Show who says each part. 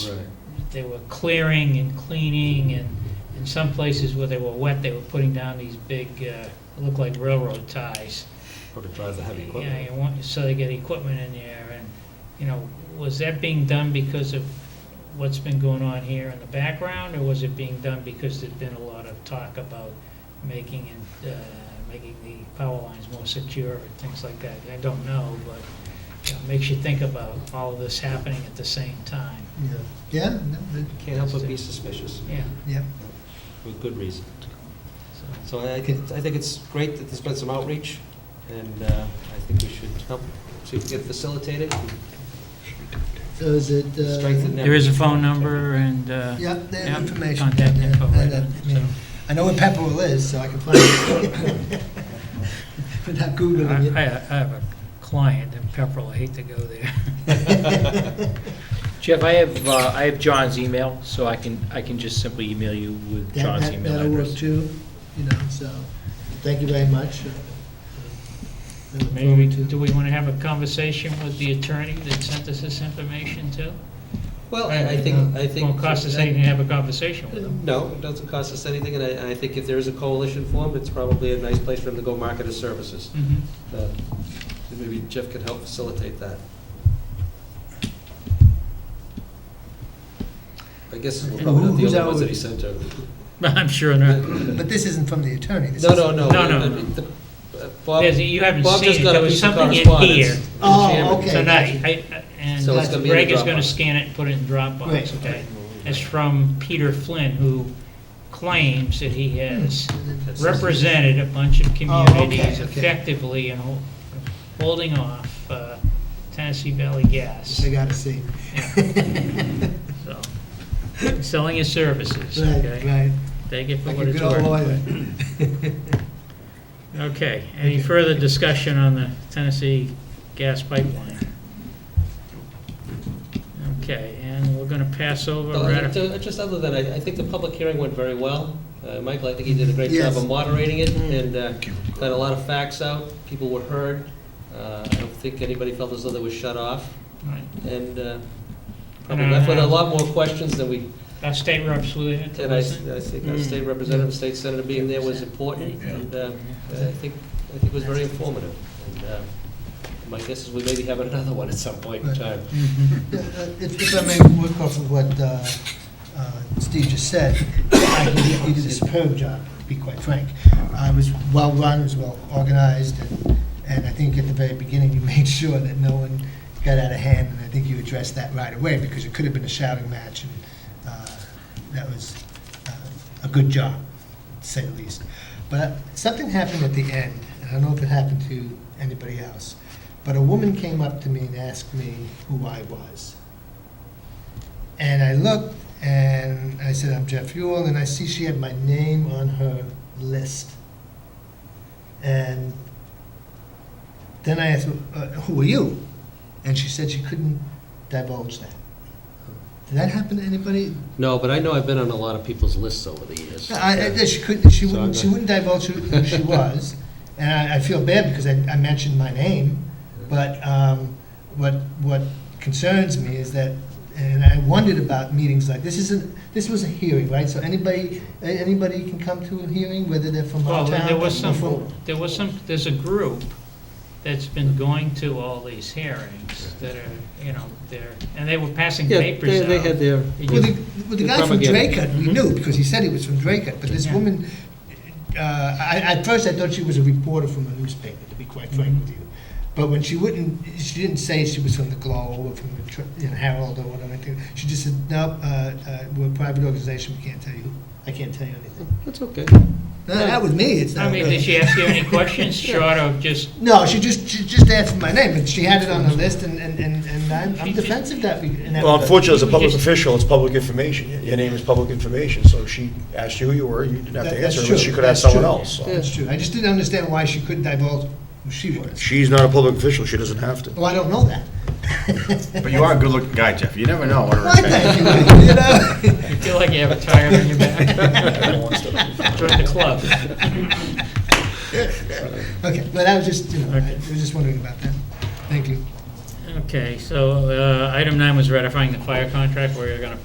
Speaker 1: they were clearing and cleaning, and in some places where they were wet, they were putting down these big, uh, look like railroad ties.
Speaker 2: Hope it drives the heavy
Speaker 1: Yeah,
Speaker 2: equipment.
Speaker 1: you want, so they get equipment in there, and, you know, was that being done because of what's been going on here in the background, or was it being done because there's been a lot of talk about making it, uh, making the power lines more secure and things like that? I don't know, but you know, it makes you think about all of this happening at the same time,
Speaker 3: Yeah. Yeah, no, that-
Speaker 2: Can't help but be suspicious,
Speaker 1: yeah,
Speaker 3: yeah,
Speaker 2: with good reason.
Speaker 1: so.
Speaker 2: So I I think, I think it's great that there's been some outreach, and uh, I think we should help, see if we can facilitate it, and
Speaker 3: so is it? uh,
Speaker 2: strengthen that.
Speaker 1: There is a phone number and, uh,
Speaker 3: Yeah, the
Speaker 1: yeah,
Speaker 3: information.
Speaker 1: contact
Speaker 3: yeah,
Speaker 1: info,
Speaker 3: I-
Speaker 1: right.
Speaker 3: that- I mean, I know where Pepperell is, so I can find it. But not
Speaker 1: I,
Speaker 3: Googling
Speaker 1: I
Speaker 3: it.
Speaker 1: I have a client in Pepperell, I hate to go there.
Speaker 4: Jeff, I have, uh, I have John's email, so I can, I can just simply email you with
Speaker 3: That-
Speaker 4: John's
Speaker 3: that-
Speaker 4: email
Speaker 3: That'll work
Speaker 4: address.
Speaker 3: too, you know, so, thank you very much. Uh,
Speaker 1: Maybe, do we want to have a conversation with the attorney that sent us this information too?
Speaker 2: Well, I I think, I think.
Speaker 1: Won't cost us anything to have a conversation with them.
Speaker 2: No, it doesn't cost us anything, and I, and I think if there is a coalition formed, it's probably a nice place for them to go market his services. Uh, Maybe Jeff could help facilitate that. I guess we're probably not the
Speaker 3: Who's
Speaker 2: only
Speaker 3: our-
Speaker 2: ones that he sent to.
Speaker 1: I'm sure not.
Speaker 3: But this isn't from the attorney. this
Speaker 2: No,
Speaker 3: is-
Speaker 2: no, no.
Speaker 1: No, no,
Speaker 2: I
Speaker 1: no.
Speaker 2: mean, the- uh, Bob,
Speaker 1: There's- you haven't
Speaker 2: Bob just
Speaker 1: seen it.
Speaker 2: got
Speaker 1: There
Speaker 2: a
Speaker 1: was
Speaker 2: piece of
Speaker 1: something in
Speaker 2: correspondence.
Speaker 1: here.
Speaker 2: to the
Speaker 3: Oh,
Speaker 2: chairman.
Speaker 3: okay.
Speaker 1: Tonight, I- I, and
Speaker 2: So it's gonna be in
Speaker 1: Greg
Speaker 2: the
Speaker 1: is going to
Speaker 2: Dropbox.
Speaker 1: scan it and put it in
Speaker 3: Great,
Speaker 1: Dropbox, okay?
Speaker 3: okay.
Speaker 1: It's from Peter Flynn, who claims that he has represented a bunch of communities
Speaker 3: Oh, okay.
Speaker 1: effectively in hol- holding off uh, Tennessee Valley Gas.
Speaker 3: I gotta see.
Speaker 1: So, selling his services,
Speaker 3: Right,
Speaker 1: okay?
Speaker 3: right.
Speaker 1: Take it for
Speaker 3: Like
Speaker 1: what
Speaker 3: a
Speaker 1: it's
Speaker 3: good old
Speaker 1: worth.
Speaker 3: lawyer.
Speaker 1: Okay, any further discussion on the Tennessee gas pipeline? Okay, and we're gonna pass over,
Speaker 2: No, I-
Speaker 1: ratif-
Speaker 2: to- uh, Just other than, I I think the public hearing went very well. Uh, Michael, I think he did a great
Speaker 3: Yes. Mm-hmm.
Speaker 2: job of moderating it and uh, got a lot of facts out. People were heard. Uh, I don't think anybody felt as though they were shut off.
Speaker 1: right.
Speaker 2: And uh, probably
Speaker 1: And I-
Speaker 2: left with a lot more questions than we,
Speaker 1: our state reps were there to
Speaker 2: and I I
Speaker 1: listen.
Speaker 2: think our state representative, state senator being there was important. And uh, I think, I think it was very informative. And uh, My guess is we maybe have another one at some point in
Speaker 3: Right.
Speaker 2: time.
Speaker 3: Yeah, uh, If if I may work off of what uh, uh, Steve just said, I think he he did a superb job, to be quite frank. Uh, It was well-run, it was well-organized, and- and I think at the very beginning, you made sure that no one got out of hand, and I think you addressed that right away, because it could have been a shouting match, and uh, that was uh, a good job, to say the least. But something happened at the end, and I don't know if it happened to anybody else, but a woman came up to me and asked me who I was. And I looked and I said, I'm Jeff Yule, and I see she had my name on her list. And then I asked, uh, Who are you? And she said she couldn't divulge that. Did that happen to anybody?
Speaker 2: No, but I know I've been on a lot of people's lists over the years.
Speaker 3: No, I, I, that she couldn't, she
Speaker 2: So
Speaker 3: wouldn't,
Speaker 2: I'm
Speaker 3: she
Speaker 2: not-
Speaker 3: wouldn't divulge who- who she was, and I, I feel bad because I, I mentioned my name, but, um, what, what concerns me is that, and I wondered about meetings like, this isn't, this was a hearing, right? So anybody, a- anybody can come to a hearing, whether they're from
Speaker 1: Well,
Speaker 3: our
Speaker 1: there-
Speaker 3: town.
Speaker 1: there was
Speaker 3: or
Speaker 1: some-
Speaker 3: from-
Speaker 1: There was some, there's a group that's been going to all these hearings that are, you know, they're, and they were passing
Speaker 2: Yeah,
Speaker 1: papers
Speaker 2: they
Speaker 1: out.
Speaker 2: they had their,
Speaker 1: And you-
Speaker 3: Well, the, well, the
Speaker 2: The
Speaker 3: guy from
Speaker 2: propaganda.
Speaker 3: Dracut, we knew, because he said he was from Dracut, but this
Speaker 1: Mm-hmm. Yeah.
Speaker 3: woman, uh, I, at first I thought she was a reporter from a newspaper, to be quite frank
Speaker 1: Mm-hmm.
Speaker 3: with you. But when she wouldn't, she didn't say she was from the Globe or from the Tr- you know, Herald or whatever, I think. she just said, no, uh, uh, we're a private organization, we can't tell you, I can't tell you anything.
Speaker 2: that's okay.
Speaker 3: No, That was me, it's
Speaker 1: Mm-hmm. I
Speaker 3: not
Speaker 1: mean, did
Speaker 3: her.
Speaker 1: she ask you any questions short of just,
Speaker 3: No, she just, she just asked for my name, and she had it on her list, and, and, and and I'm I'm defensive that we. in that
Speaker 5: Well,
Speaker 3: regard.
Speaker 5: unfortunately, as a public
Speaker 1: Just-
Speaker 5: official, it's public information. Your name is public information, so she asked you who you were, you didn't have to
Speaker 3: That- that's
Speaker 5: answer, but
Speaker 3: true.
Speaker 5: she could ask
Speaker 3: That's
Speaker 5: someone
Speaker 3: true.
Speaker 5: else. so.
Speaker 3: That's true, I just didn't understand why she couldn't divulge who she was.
Speaker 5: She's not a public official, she doesn't have to.
Speaker 3: Well, I don't know that.
Speaker 6: But you are a good-looking guy, Jeff. You never know. what her
Speaker 3: Well, thank you, you know?
Speaker 1: you feel like you have a tire on your back? Join the club.
Speaker 3: Okay, but I was just, you know, I
Speaker 1: Okay.
Speaker 3: was just wondering about that. Thank you.
Speaker 1: Okay, so uh, item nine was ratifying the fire contract. We're going to